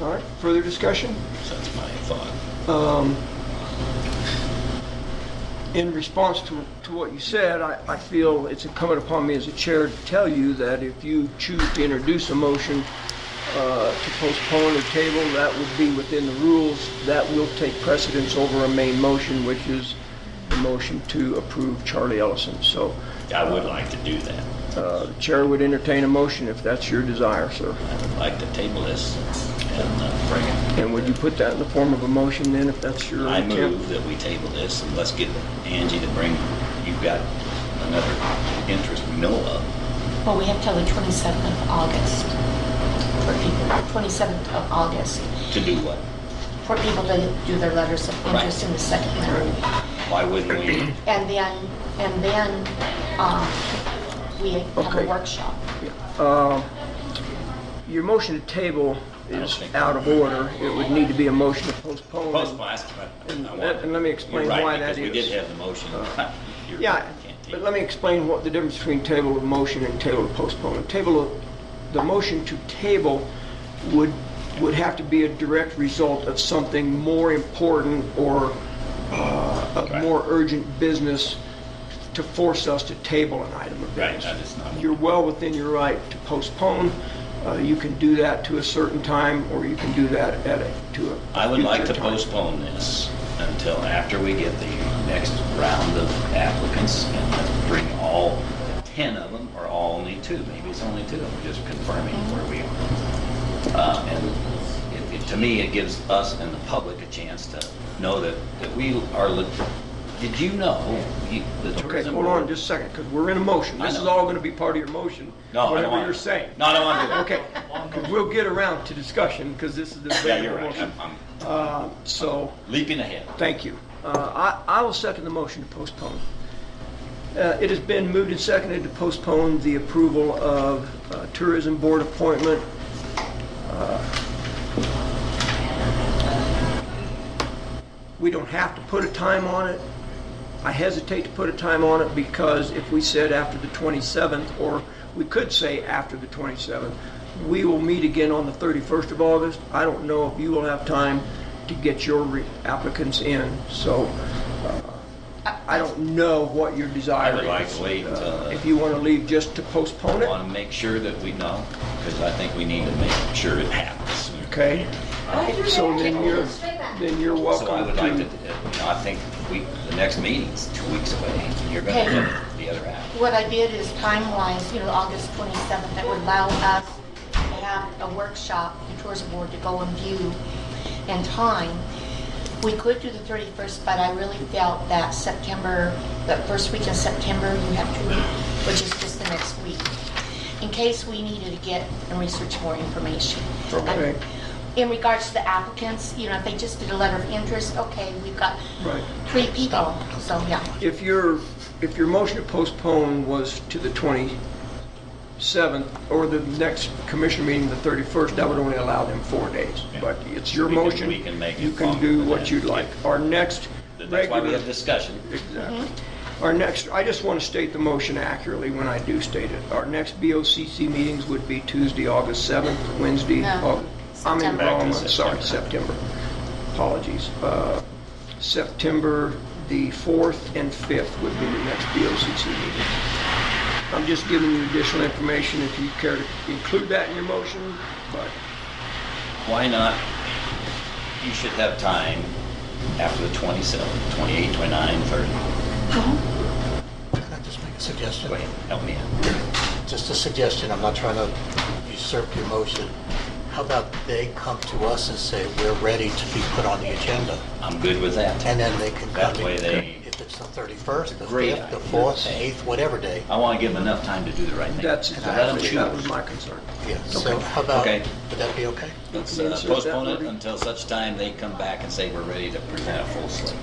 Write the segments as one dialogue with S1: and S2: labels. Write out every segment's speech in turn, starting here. S1: All right, further discussion?
S2: That's my thought.
S1: Um, In response to, to what you said, I, I feel it's incumbent upon me as a chair to tell you that if you choose to introduce a motion uh, to postpone or table, that would be within the rules. That will take precedence over a main motion, which is the motion to approve Charlie Ellison. So
S2: I would like to do that.
S1: uh, the chair would entertain a motion if that's your desire, sir.
S2: I would like to table this and uh, bring it.
S1: And would you put that in the form of a motion then, if that's your
S2: I
S1: intent?
S2: move that we table this and let's get Angie to bring, you've got another interest we know of.
S3: Well, we have till the 27th of August for people, 27th of August,
S2: To do what?
S3: for people to do their letters of
S2: Right.
S3: interest in the second round.
S2: Why wouldn't we?
S3: And then, and then uh, we have
S1: Okay.
S3: a workshop.
S1: Your motion to table
S2: I don't
S1: is
S2: think-
S1: out of order. It would need to be a motion to postpone.
S2: Postpone, that's what I- I
S1: And
S2: want.
S1: let- and let me
S2: You're
S1: explain
S2: right,
S1: why that
S2: Because we
S1: is. Uh,
S2: did have the motion. You're
S1: Yeah,
S2: right, we can't
S1: but
S2: table.
S1: let me explain what the difference between table of motion and table of postponement. Table of, the motion to table would, would have to be a direct result of something more important or uh, of
S2: Right.
S1: more urgent business to force us to table an item of
S2: Right,
S1: business.
S2: that is not-
S1: You're well within your right to postpone. Uh, You can do that to a certain time, or you can do that at a, to a
S2: I would like to
S1: future time.
S2: postpone this until after we get the next round of applicants and bring all 10 of them, or all only two, maybe it's only two, I'm just confirming where we are. Uh, And it- it- to me, it gives us and the public a chance to know that, that we are, le- did you know, you- the
S1: Okay,
S2: tourism
S1: hold on
S2: board?
S1: just a second, because we're in a motion.
S2: I
S1: This is
S2: know.
S1: all going to be part of your motion,
S2: No, I don't
S1: whatever
S2: want-
S1: you're saying.
S2: No, I don't want to do that.
S1: Okay, 'cause we'll get around to discussion, because this is the.
S2: Yeah, you're right, I'm- I'm
S1: Uh, So,
S2: leaping ahead.
S1: thank you. Uh, I I will second the motion to postpone. Uh, It has been moved and seconded to postpone the approval of uh, Tourism Board appointment. Uh, We don't have to put a time on it. I hesitate to put a time on it because if we said after the 27th, or we could say after the 27th, we will meet again on the 31st of August. I don't know if you will have time to get your re- applicants in, so uh, I I don't know what your desire
S2: I
S1: is.
S2: would like to wait,
S1: Uh,
S2: uh,
S1: If you want to leave just to postpone
S2: I
S1: it,
S2: want to make sure that we know, because I think we need to make sure it happens sooner.
S1: okay? So then you're, then you're
S2: So I
S1: welcome
S2: would like
S1: to,
S2: to, you know, I think we, the next meeting's two weeks away, and you're gonna
S3: Okay.
S2: get the other half.
S3: What I did is time-wise, you know, August 27th, that would allow us to have a workshop, the tourism board to go and view in time. We could do the 31st, but I really felt that September, the first week in September, you have to, which is just the next week, in case we needed to get and research more information.
S1: Okay.
S3: In regards to the applicants, you know, if they just did a letter of interest, okay, we've got
S1: right.
S3: three people, so yeah.
S1: If your, if your motion to postpone was to the 27th, or the next commission meeting, the 31st, that would only allow them four days.
S2: Yeah.
S1: But it's your
S2: We can-
S1: motion.
S2: we can make it
S1: You can
S2: longer
S1: do
S2: than
S1: what
S2: that.
S1: you'd like. Our next
S2: That's why we
S1: regular...
S2: have discussion.
S1: Exactly. Our next, I just want to state the motion accurately when I do state it. Our next BOCC meetings would be Tuesday, August 7th, Wednesday,
S3: No,
S1: August... I'm in the
S3: September.
S1: wrong
S2: Back to
S1: month, sorry, September. Apologies. Uh, September the 4th and 5th would be the next BOCC meeting. I'm just giving you additional information if you care to include that in your motion, but
S2: Why not? You should have time after the 27th, 28, 29, 30.
S4: Can I just make a suggestion?
S2: Go ahead, help me out.
S4: Just a suggestion, I'm not trying to usurp your motion. How about they come to us and say, "We're ready to be put on the agenda,"
S2: I'm good with that.
S4: and then they can
S2: That
S4: come
S2: way they-
S4: in, if it's the 31st, the
S2: Great
S4: 5th, the
S2: idea. Oh,
S4: 4th, the 8th, whatever day.
S2: I want to give them enough time to do the right thing.
S1: that's
S2: And let 'em
S1: exactly, that was
S2: choose.
S1: my concern.
S4: Yeah, so how about,
S2: Okay.
S4: would that be okay?
S2: Let's
S1: Can you
S2: uh,
S1: insert that,
S2: postpone it
S1: Libby?
S2: until such time they come back and say we're ready to present a full slate.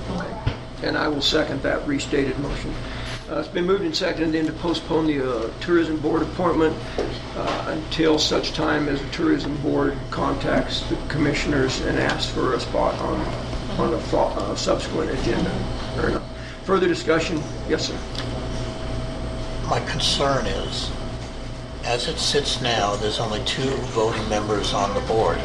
S1: And I will second that restated motion. Uh, It's been moved and seconded then to postpone the uh, Tourism Board appointment uh, until such time as the Tourism Board contacts the commissioners and asks for a spot on, on a fo- uh, subsequent agenda. Fair enough. Further discussion? Yes, sir.
S4: My concern is, as it sits now, there's only two voting members on the board.